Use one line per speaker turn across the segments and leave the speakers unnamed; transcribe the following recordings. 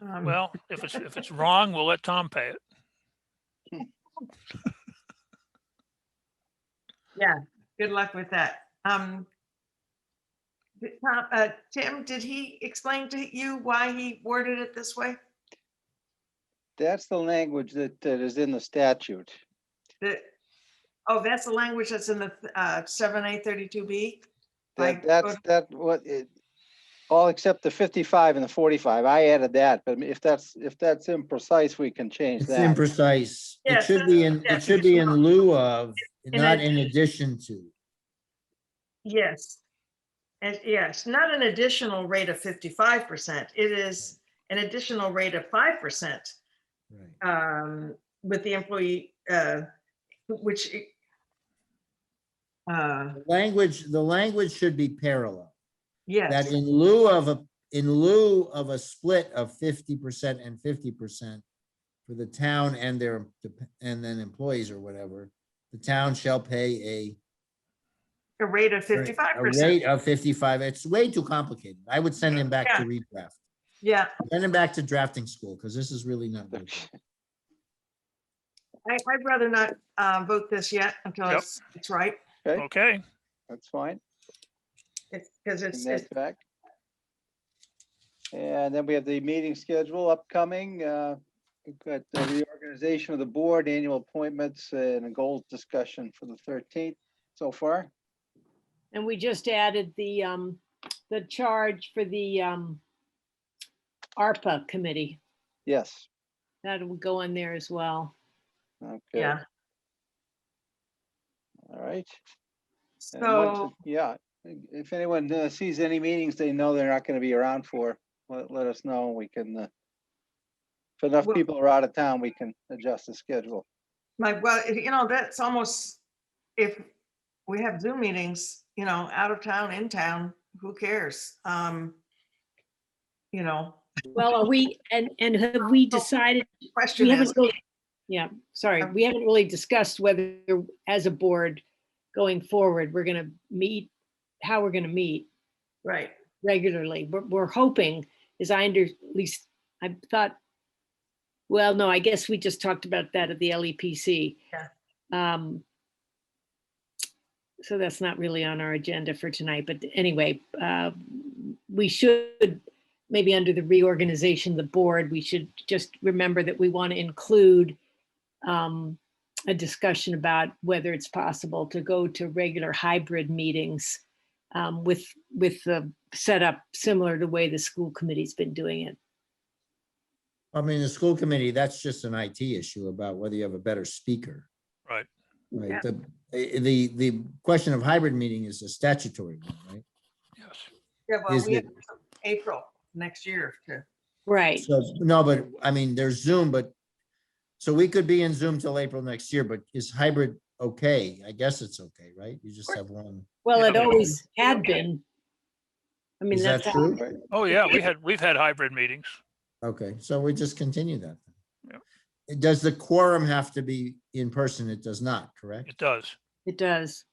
Um,
Well, if it's, if it's wrong, we'll let Tom pay it.
Good luck with that. Um, did Tom- uh, Tim, did he explain to you why he worded it this way?
That's the language that, that is in the statute.
That, oh, that's the language that's in the, uh, seven, eight, thirty-two B? Like,
That, that's,
go-
that, what it, all except the fifty-five and the forty-five. I added that, but if that's, if that's imprecise, we can change
It's
that.
imprecise. It
Yes,
should be in,
yes,
it should be in lieu of,
In
not in addition to.
Yes. And yes, not an additional rate of fifty-five percent. It is an additional rate of five percent,
Right.
um, with the employee, uh, which i- uh,
The Language, the language should be parallel, that
yes,
in lieu of a, in lieu of a split of fifty percent and fifty percent for the town and their, dep- and then employees or whatever, the town shall pay a
a rate of
Right,
fifty-five
A
percent.
rate of fifty-five, it's way too complicated. I would send him back to redraft,
Yeah,
send him back to drafting school, because this is really not. good.
I, I'd rather not, uh, vote this yet until
Yep.
it's, it's right.
Okay.
Okay,
That's fine.
It's, because it's,
Bring
it's-
that back. And then we have the meeting schedule upcoming. uh, We've got the reorganization of the board, annual appointments and a goals discussion for the thirteenth so far.
And we just added the, um, the charge for the, um, ARPA committee.
Yes.
That'll go in there as well.
Okay.
yeah.
All right. And once
So,
it- Yeah, if anyone uh, sees any meetings they know they're not going to be around for, let, let us know. We can. uh, If enough
Well-
people are out of town, we can adjust the schedule.
like, well, if- you know, that's almost, if we have Zoom meetings, you know, out of town, in town, who cares? Um, you know,
Well, are we, and, and have we decided,
question
we
is,
haven't really, yeah, sorry, we haven't really discussed whether, as a board, going forward, we're gonna meet, how we're gonna meet
right,
regularly. We're, we're hoping, as I under, at least, I thought, well, no, I guess we just talked about that at the LEPC.
Yeah.
Um, So that's not really on our agenda for tonight, but anyway, uh, we should, maybe under the reorganization of the board, we should just remember that we want to include um, a discussion about whether it's possible to go to regular hybrid meetings um, with, with the set up similar to the way the school committee's been doing it.
I mean, the school committee, that's just an IT issue about whether you have a better speaker.
Right.
Yeah.
Right, the, eh, the, the question of hybrid meeting is a statutory one, right?
yes.
yeah, well,
Is
we have
it-
April next year to,
Right.
So, no, but, I mean, there's Zoom, but, so we could be in Zoom till April next year, but is hybrid okay? I guess it's okay, right? You just have one.
Well, it
Yeah.
always had been. I mean,
Is that
that's, how-
true?
Right?
Oh, yeah, we had, we've had hybrid meetings.
Okay, so we just continue that.
Yeah.
It- Does the quorum have to be in person? It does not, correct?
It does.
it does.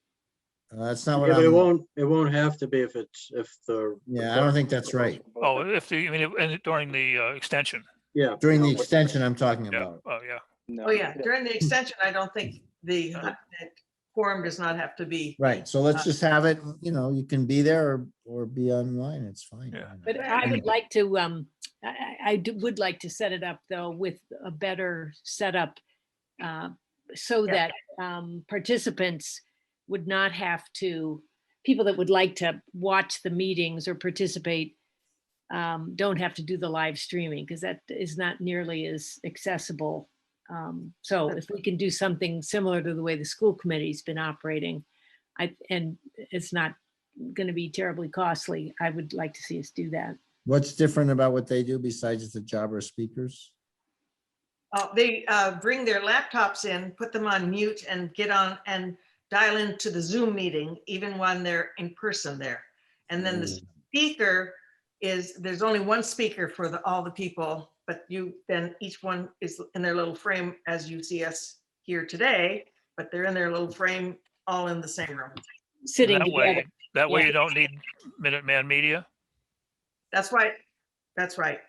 Uh, That's not what
Yeah, but it
I'm,
won't, it won't have to be if it's, if the.
yeah, I don't think that's right.
Oh, if the, I mean, and during the uh, extension.
Yeah,
During the extension I'm talking
Yeah,
about.
oh, yeah.
No,
oh, yeah, during the extension, I don't think the
Uh-huh.
that quorum does not have to be,
Right, so let's just have it, you know, you can be there or, or be online, it's fine.
Yeah.
But I would like to, um, I, I- I do- would like to set it up though with a better setup. uh, So
Yeah.
that, um, participants would not have to, people that would like to watch the meetings or participate um, don't have to do the live streaming because that is not nearly as accessible. Um, so if we can do something similar to the way the school committee's been operating, I, and it's not going to be terribly costly, I would like to see us do that.
What's different about what they do besides it's a job or speakers?
oh, they, uh, bring their laptops in, put them on mute and get on and dial into the Zoom meeting, even when they're in person there. And then the
Mm.
speaker is, there's only one speaker for the, all the people, but you, then each one is in their little frame as you see us here today, but they're in their little frame, all in the same room.
Sitting
That way-
together,
That way
Yeah.
you don't need Minuteman Media.
That's why, that's right.